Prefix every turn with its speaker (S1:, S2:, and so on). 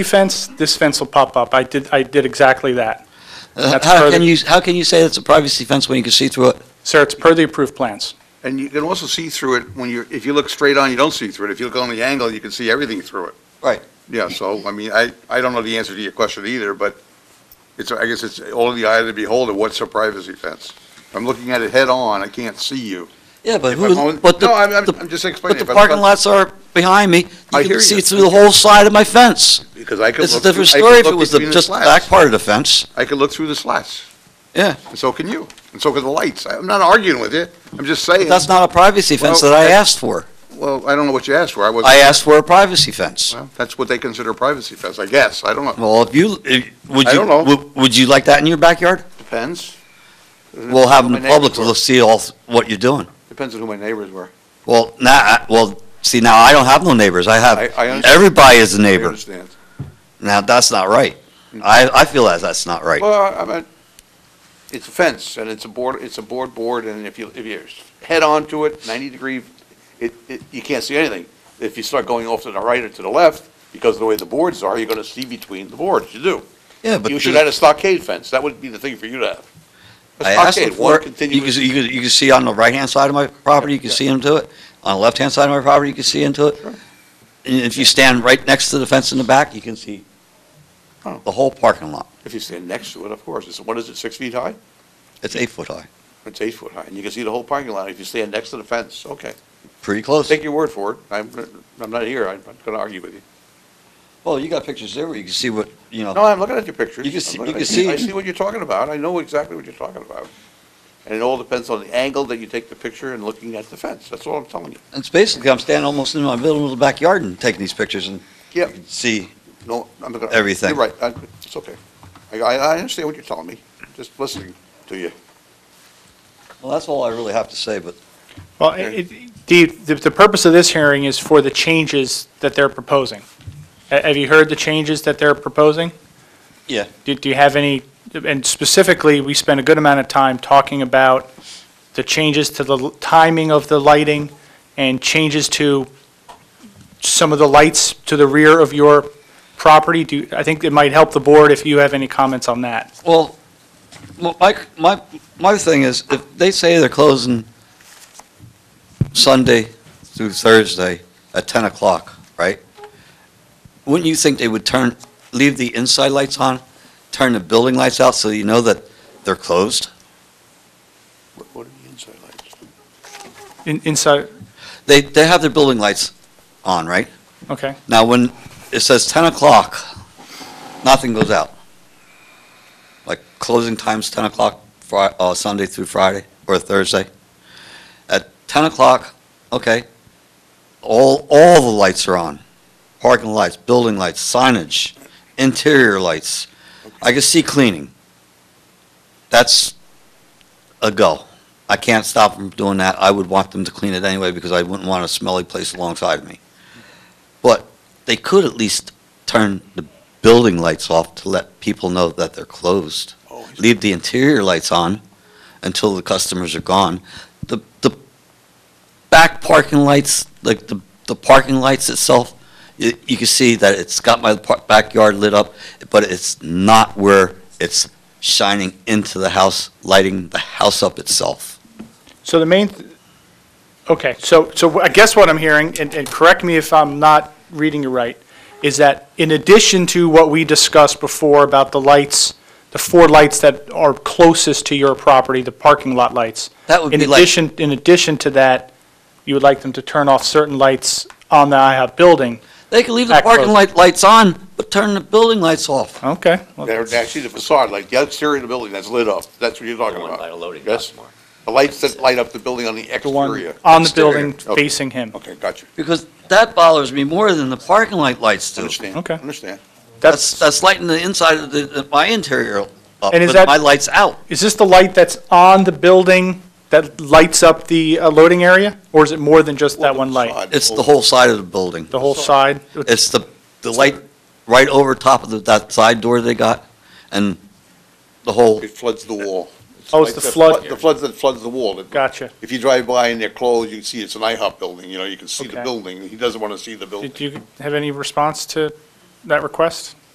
S1: fence, this fence will pop up. I did, I did exactly that.
S2: Uh,
S1: That's
S2: How
S1: further-
S2: can you, how can you say it's a privacy fence when you can see through it?
S1: Sir, it's per the approved plans.
S3: And you can also see through it when you're, if you look straight on, you don't see through it. If you look on the angle, you can see everything through it.
S2: Right.
S3: Yeah, so, I mean, I, I don't know the answer to your question either, but it's, I guess it's all in the eye of the beholder, what's a privacy fence? If I'm looking at it head-on, I can't see you.
S2: Yeah, but
S3: If
S2: who,
S3: I'm on-
S2: but the.
S3: No, I'm- I'm-
S2: the-
S3: I'm just explaining,
S2: But the
S3: but-
S2: parking
S3: but-
S2: lots are behind me.
S3: I
S2: You
S3: hear
S2: can see
S3: you.
S2: through the whole side of my fence.
S3: Because I could
S2: It's a
S3: look. through-
S2: different
S3: I could
S2: story if
S3: look
S2: it was the,
S3: between
S2: just the
S3: slats.
S2: back part of the fence.
S3: I could look through the slats,
S2: Yeah,
S3: and so can you, and so can the lights. I'm not arguing with you, I'm just saying,
S2: but that's not a privacy fence
S3: Well,
S2: that I
S3: that-
S2: asked for.
S3: well, I don't know what you asked for. I wasn't.
S2: I asked for a privacy fence.
S3: Well, That's what they consider a privacy fence, I guess. I don't know.
S2: Well, if you, if- would you?
S3: I don't know.
S2: Would, would you like that in your backyard?
S3: Depends.
S2: We'll have
S3: Who my
S2: the public
S3: neighbors were.
S2: to see all, th- what you're doing.
S3: Depends on who my neighbors were.
S2: Well, now, I- well, see, now I don't have no neighbors. I have,
S3: I- I understand.
S2: everybody is a
S3: I
S2: neighbor.
S3: understand.
S2: Now, that's not right. I, I feel that that's not right.
S3: Well, I mean, it's a fence and it's a board, it's a board board and if you, if you're head on to it, ninety degree, it, it, you can't see anything. If you start going off to the right or to the left, because of the way the boards are, you're gonna see between the boards, you do.
S2: Yeah, but
S3: You should
S2: the-
S3: add a stockade fence. That would be the thing for you to have. A
S2: I asked him
S3: stockade,
S2: for it. You
S3: one
S2: can,
S3: continuous-
S2: see- you can, you can see on the right-hand side of my property, you can see into it. On the left-hand side of my property, you can see into it.
S3: Sure.
S2: And if you stand right next to the fence in the back, you can see
S3: Oh.
S2: the whole parking lot.
S3: If you stand next to it, of course. It's, what is it, six feet high?
S2: It's eight foot high,
S3: It's eight foot high and you can see the whole parking lot if you stand next to the fence. Okay.
S2: pretty close.
S3: Take your word for it. I'm, I'm not here. I'm not gonna argue with you.
S2: Well, you got pictures there where you can see what, you know,
S3: No, I'm looking at your pictures.
S2: Oh. You can
S3: I'm
S2: see-
S3: looking
S2: you
S3: at
S2: can
S3: your- I
S2: see-
S3: see what you're talking about. I know exactly what you're talking about. And it all depends on the angle that you take the picture and looking at the fence. That's all I'm telling you.
S2: it's basically, I'm standing almost in my middle of the backyard and taking these pictures and
S3: Yeah,
S2: see.
S3: no, I'm not gonna.
S2: Everything.
S3: You're right. I- It's okay. I, I I understand what you're telling me. Just listening to you.
S2: Well, that's all I really have to say, but
S1: Well, it- it- the, the the purpose of this hearing is for the changes that they're proposing. Ha- Have you heard the changes that they're proposing?
S2: Yeah.
S1: Do, do you have any, and specifically, we spent a good amount of time talking about the changes to the l- timing of the lighting and changes to some of the lights to the rear of your property. Do, I think it might help the board if you have any comments on that.
S2: Well, well, my, my, my thing is, if they say they're closing Sunday through Thursday at 10 o'clock, right? Wouldn't you think they would turn, leave the inside lights on, turn the building lights out so you know that they're closed?
S3: What- What are the inside lights?
S1: In- Inside,
S2: They, they have their building lights on, right?
S1: okay.
S2: Now, when it says 10 o'clock, nothing goes out. Like closing time's 10 o'clock, Fri- uh, Sunday through Friday or Thursday. At 10 o'clock, okay, all, all the lights are on. Parking lights, building lights, signage, interior lights. I can see cleaning. That's a go. I can't stop them from doing that. I would want them to clean it anyway because I wouldn't want a smelly place alongside of me they could at least turn the building lights off to let people know that they're closed.
S3: Oh, I see.
S2: Leave the interior lights on until the customers are gone. The, the back parking lights, like the, the parking lights itself, you, you can see that it's got my par- backyard lit up, but it's not where it's shining into the house, lighting the house up itself.
S1: So the main, th- okay, so, so I guess what I'm hearing, and, and correct me if I'm not reading you right, is that in addition to what we discussed before about the lights, the four lights that are closest to your property, the parking lot lights,
S2: That would
S1: in
S2: be like.
S1: addition, in addition to that, you would like them to turn off certain lights on the IHOP building?
S2: They can leave the
S1: Back
S2: parking
S1: closed.
S2: light, lights on, but turn the building lights off.
S1: Okay. well,
S3: They're, they're actually the facade, like the exterior of the building that's lit up. That's what you're talking
S4: The one
S3: about.
S4: by the loading dock
S3: Yes.
S4: more.
S3: The lights that light up the building on the
S1: The one
S3: exterior.
S1: on the
S3: Exterior.
S1: building
S3: Okay.
S1: facing him.
S3: Okay, got you.
S2: Because that bothers me more than the parking light lights do.
S3: Understand.
S1: Okay.
S3: Understand.
S2: That's,
S1: That's,
S2: that's lighting the inside of the, the- my interior up,
S1: And is
S2: but
S1: that-
S2: my light's out.
S1: is this the light that's on the building that lights up the uh, loading area? Or is it more than just that one light?
S3: Facade.
S2: It's the whole side of the building.
S1: The whole side?
S2: It's the, the light right over top of the- that side door they got, and the whole,
S3: It floods the wall.
S1: Oh, it's the
S3: Like
S1: flood,
S3: The floods that floods the wall. It-
S1: gotcha.
S3: If you drive by and they're closed, you can see it's an IHOP building, you know, you can see the
S1: Okay.
S3: building. He doesn't want to see the building.
S1: Did you have any response to that request?